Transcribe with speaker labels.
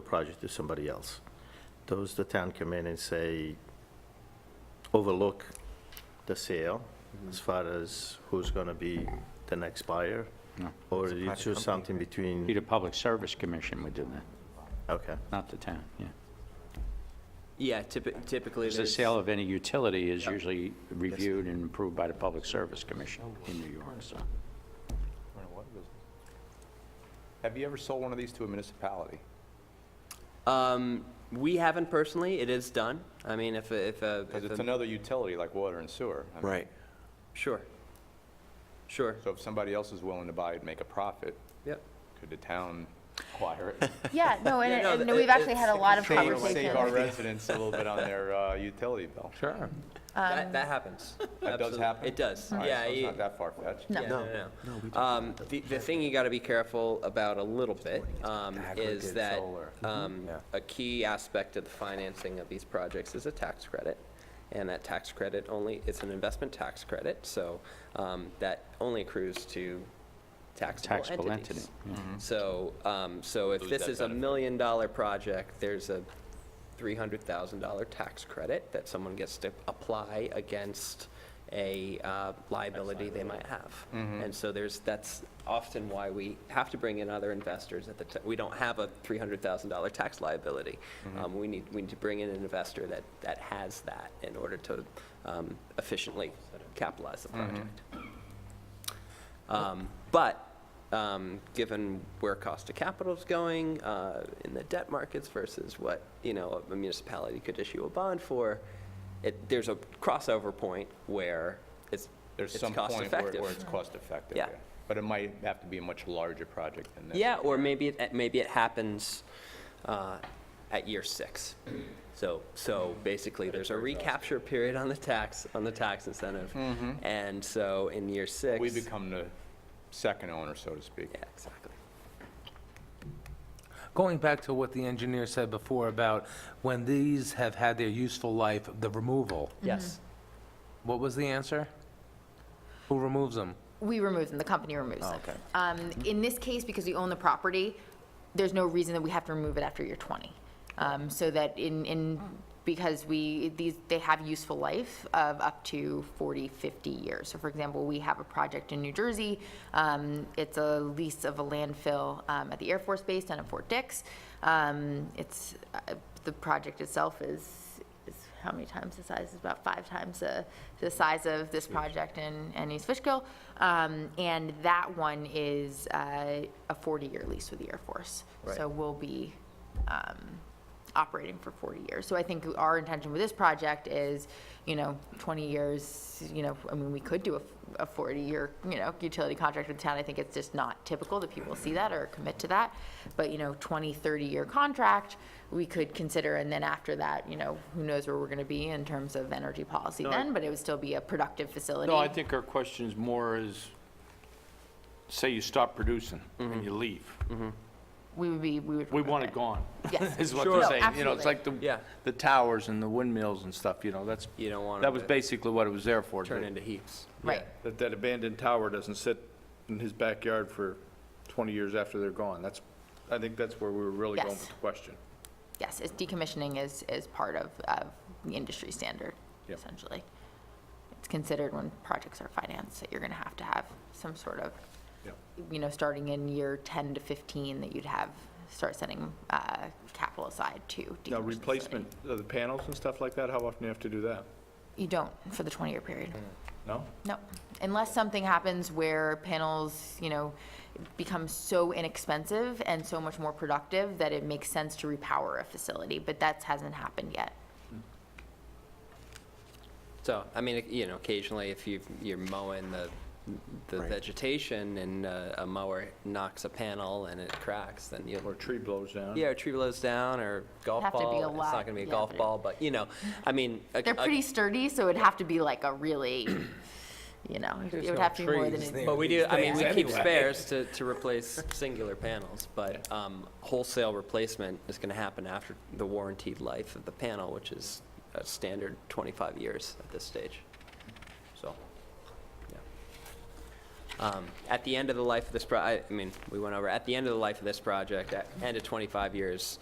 Speaker 1: project to somebody else. Those the town come in and say, overlook the sale
Speaker 2: Mm-hmm.
Speaker 1: as far as who's going to be the next buyer?
Speaker 3: No.
Speaker 1: Or
Speaker 2: It's a
Speaker 1: it's
Speaker 2: private
Speaker 1: just
Speaker 2: company,
Speaker 1: something
Speaker 2: right?
Speaker 1: between,
Speaker 3: Peter Public Service Commission would do that,
Speaker 1: okay.
Speaker 3: not the town, yeah.
Speaker 2: Yeah, typi- typically
Speaker 3: Because the
Speaker 2: there's...
Speaker 3: sale of any utility is usually reviewed and approved by the Public Service Commission in New York, so.
Speaker 4: Have you ever sold one of these to a municipality?
Speaker 2: Um, we haven't personally, it is done. I mean, if, a- if, a-
Speaker 4: Because
Speaker 2: if,
Speaker 4: it's
Speaker 2: a-
Speaker 4: another utility like water and sewer. I mean,
Speaker 5: Right.
Speaker 2: sure. Sure,
Speaker 4: So if somebody else is willing to buy it, make a profit,
Speaker 2: yep.
Speaker 4: could the town acquire it?
Speaker 6: Yeah, no, and,
Speaker 2: Yeah, no,
Speaker 6: and
Speaker 2: th-
Speaker 6: we've
Speaker 2: it-
Speaker 6: actually had a
Speaker 2: it's-
Speaker 6: lot of
Speaker 4: Save- Save our
Speaker 6: conversations.
Speaker 4: residents a little bit on their uh, utility bill.
Speaker 3: Sure.
Speaker 6: Um,
Speaker 2: That, that happens.
Speaker 4: That does
Speaker 2: Absolutely.
Speaker 4: happen?
Speaker 2: It does,
Speaker 4: All right,
Speaker 2: yeah.
Speaker 4: so it's
Speaker 2: you-
Speaker 4: not that far-fetched.
Speaker 6: No.
Speaker 2: Yeah, no, no. Um, the, the thing you gotta be careful about a little bit, um, is
Speaker 4: Aggregate
Speaker 2: that,
Speaker 4: solar.
Speaker 2: um, a key aspect of the financing of these projects is a tax credit. And that tax credit only, it's an investment tax credit, so, um, that only accrues to taxable
Speaker 3: Taxable
Speaker 2: entities.
Speaker 3: entity, yeah.
Speaker 2: So, um, so if this is a million-dollar project, there's a $300,000 tax credit that someone gets to apply against a uh, liability they might have. And so there's, that's often why we have to bring in other investors at the, ti- we don't have a $300,000 tax liability. Um, We need, we need to bring in an investor that, that has that in order to um, efficiently capitalize the project. Um, But, um, given where cost of capital is going uh, in the debt markets versus what, you know, a municipality could issue a bond for, it, there's a crossover point where it's,
Speaker 4: There's
Speaker 2: it's
Speaker 4: some
Speaker 2: cost
Speaker 4: point where where
Speaker 2: effective.
Speaker 4: it's cost-effective.
Speaker 2: Yeah.
Speaker 4: But it might have to be a much larger project than this.
Speaker 2: Yeah, or maybe, it- maybe it happens uh, at year six. So, so basically, there's a recapture period on the tax, on the tax incentive. And so in year six.
Speaker 4: Mm-hmm. We become the second owner, so to speak.
Speaker 2: Yeah, exactly.
Speaker 7: Going back to what the engineer said before about when these have had their useful life, the removal,
Speaker 2: Yes.
Speaker 7: what was the answer? Who removes them?
Speaker 6: We remove them, the company removes them. Um, in this case, because we own the property, there's no reason that we have to remove it after year 20. Um, so that in, in, because we, these, they have useful life of up to 40, 50 years. So for example, we have a project in New Jersey, um, it's a lease of a landfill, um, at the Air Force Base down at Fort Dix. Um, it's, uh, the project itself is is how many times the size, is about five times the, the size of this project in, in East Fishkill. Um, and that one is, uh, a forty-year lease with the Air Force. So we'll be, um, operating for forty years. So I think our intention with this project is, you know, twenty years, you know, I mean, we could do a, a forty-year, you know, utility contract with the town. I think it's just not typical that people see that or commit to that. But, you know, 20, 30-year contract, we could consider, and then after that, you know, who knows where we're going to be in terms of energy policy then, but it would still be a productive facility.
Speaker 8: No, I think our question is more is, say you stop producing
Speaker 4: Mm-hmm.
Speaker 8: and you leave.
Speaker 6: We would be, we would.
Speaker 8: We want it gone.
Speaker 6: Yes.
Speaker 8: Is what
Speaker 6: Sure.
Speaker 8: they're
Speaker 6: No,
Speaker 8: saying. You know, it's
Speaker 6: absolutely.
Speaker 8: like the,
Speaker 2: Yeah.
Speaker 8: the towers and the windmills and stuff, you know, that's,
Speaker 2: You don't want
Speaker 8: that
Speaker 2: them
Speaker 8: was
Speaker 2: to
Speaker 8: basically what it was there for.
Speaker 2: turn
Speaker 8: to-
Speaker 2: into heaps.
Speaker 6: Right.
Speaker 9: That that abandoned tower doesn't sit in his backyard for 20 years after they're gone. That's, I think that's where we were really going
Speaker 6: Yes.
Speaker 9: with the question.
Speaker 6: Yes, it's decommissioning is, is part of, of the industry standard,
Speaker 9: Yep.
Speaker 6: essentially. It's considered when projects are financed, that you're gonna have to have some sort of,
Speaker 9: Yep.
Speaker 6: you know, starting in year ten to fifteen, that you'd have, start setting, uh, capital aside to decommission the
Speaker 9: Now,
Speaker 6: facility.
Speaker 9: replacement of the panels and stuff like that, how often do you have to do that?
Speaker 6: You don't for the twenty-year period.
Speaker 9: No?
Speaker 6: No, unless something happens where panels, you know, become so inexpensive and so much more productive that it makes sense to repower a facility, but that hasn't happened yet.
Speaker 2: So, I mean, you know, occasionally if you, you're mowing the, the vegetation and uh, a mower knocks a panel and it cracks, then you'll.
Speaker 9: Or a tree blows down?
Speaker 2: Yeah, a tree blows down or golf
Speaker 6: Have to be
Speaker 2: ball.
Speaker 6: a
Speaker 2: It's
Speaker 6: lot,
Speaker 2: not gonna be a
Speaker 6: yeah,
Speaker 2: golf
Speaker 6: but it-
Speaker 2: ball, but, you know, I mean. a-
Speaker 6: They're
Speaker 2: a-
Speaker 6: pretty sturdy, so it'd have to be like a really, you know, it would have to be more than.
Speaker 7: trees
Speaker 6: an-
Speaker 2: But we do, I mean, we keep spares to, to replace singular panels, but um, wholesale replacement is gonna happen after the warranted life of the panel, which is a standard 25 years at this stage. So, yeah. Um, At the end of the life of this, pro- I I mean, we went over, at the end of the life of this project, at end of 25 years,